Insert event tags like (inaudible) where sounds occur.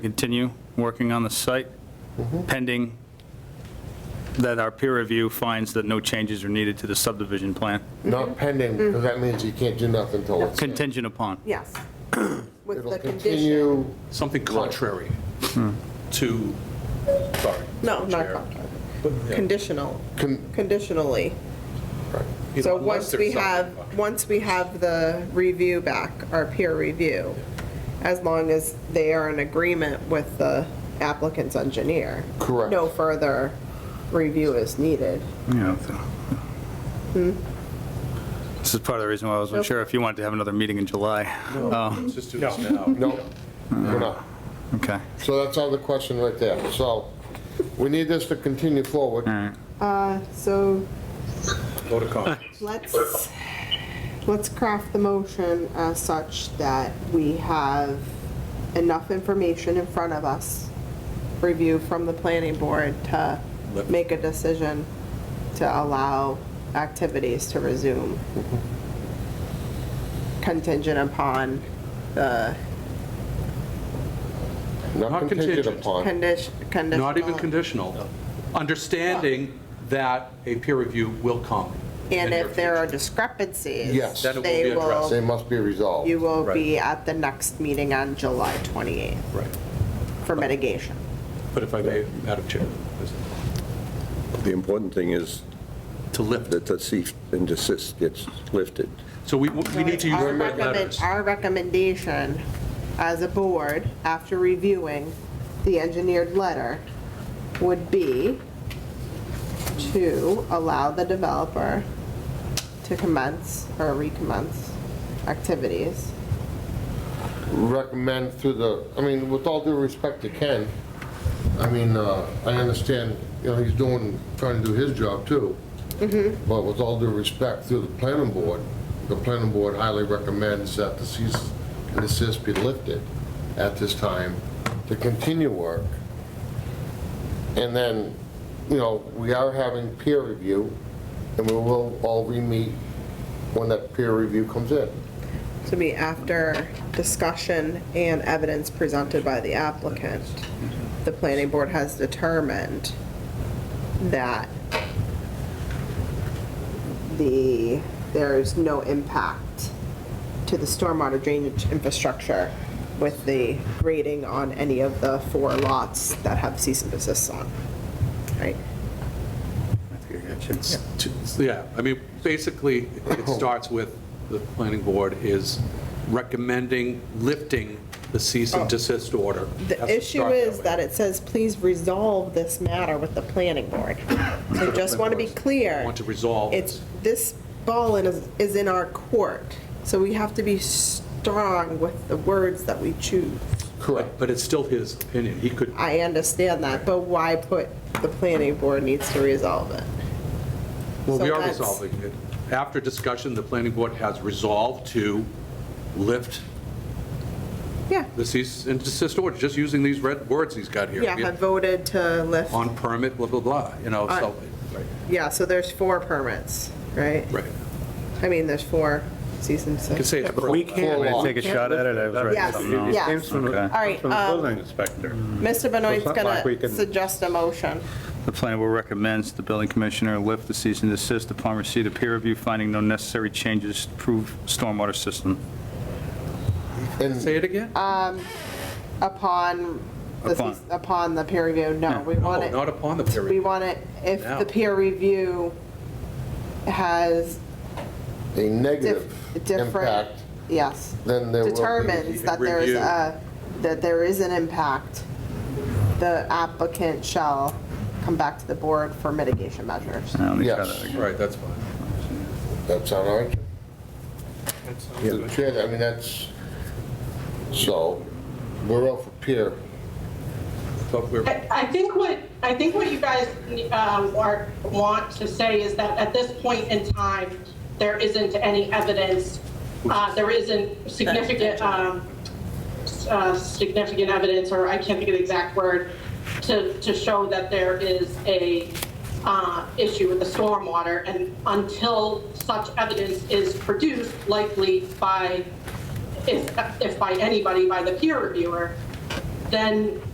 continue working on the site pending that our peer review finds that no changes are needed to the subdivision plan, Not pending, because that means you can't do nothing till it's. contingent upon. (clears throat) Yes. With It'll the condition. continue, Something contrary to, sorry. No, not Chair. contrary. Conditional, con- conditionally. You So know, unless once there's we something have, contrary. once we have the review back, our peer review, as long as they are in agreement with the applicant's engineer. Correct. No further review is needed. Yeah. This is part of the reason why I was unsure if you wanted to have another meeting in July. Oh, Let's just do this now. no, we're not. Okay. So that's all the question right there. So we need this to continue forward. So Go to comments. Let's, let's craft the motion as such that we have enough information in front of us, review from the planning board to Let- make a decision to allow activities to resume contingent upon the Not Not contingent contingent. Uh, upon. condition, conditional. Not even conditional, understanding that a peer review will come. And in your if there are future. discrepancies. Yes. Then it will they be addressed. They must be resolved. You will Right. be at the next meeting on July 28th Right. for mitigation. But if I may, Madam Chair, The important thing is To lift it. that the cease and desist gets lifted. So we, we need to use Our the right recommend- letters. Our recommendation as a board, after reviewing the engineered letter, would be to allow the developer to commence or recommence activities. recommend through the, I mean, with all due respect to Ken, I mean, uh, I understand, you know, he's doing, trying to do his job too. Mm-hmm. But with all due respect through the planning board, the planning board highly recommends that the cease and desist be lifted at this time to continue work. And then, you know, we are having peer review and we will all re-meet when that peer review comes in. To be after discussion and evidence presented by the applicant, the planning board has determined that the, there is no impact to the stormwater drainage infrastructure with the grading on any of the four lots that have cease and desist on, right? it's, It's- Yeah, I mean, basically, it starts with the planning board is recommending lifting the cease and desist order. Has Oh. The to issue start is way. that it says, please resolve this matter with the planning (coughs) board. So just want to be clear. Want to resolve It's, this. this ball in is, is in our court, so we have to be strong with the words that we choose. But but it's still his opinion. He could, I understand that, but why put the planning board needs to resolve it? well, we So are that's- resolving it. After discussion, the planning board has resolved to lift Yeah, the cease and desist order, just using these red words he's got here. yeah, have voted to lift, on permit, blah, blah, blah, you know, so, yeah, so there's four permits, right? right. I mean, there's four seasons. You can say it's. We can't. I'm going to take a shot at it. I was writing Yes, something else. yes. All right, From the um, building inspector. Mr. Benoit's not like we gonna can- suggest a motion. The planning board recommends the building commissioner lift the cease and desist upon receipt of peer review finding no necessary changes to prove stormwater system. And Say it again? Uh, upon, the Upon. cease- upon the peer review, no, we want No, it. not upon the peer We review. want it, if No. the peer review has a negative dif- different, impact, yes, then there will be. determines that there's Review. a, that there is an impact, the applicant shall come back to the board for mitigation measures. Now, let me try Yes. that again. Right, that's fine. That sound all right? Yeah, the chair, I mean, that's, so, we're out for peer. Thought we were- I I think what, I think what you guys um, are, want to say is that at this point in time, there isn't any evidence, uh, there isn't significant, um, uh, significant evidence, or I can't think of the exact word, to, to show that there is a uh, issue with the stormwater. And until such evidence is produced, likely by, if, if by anybody, by the peer reviewer, then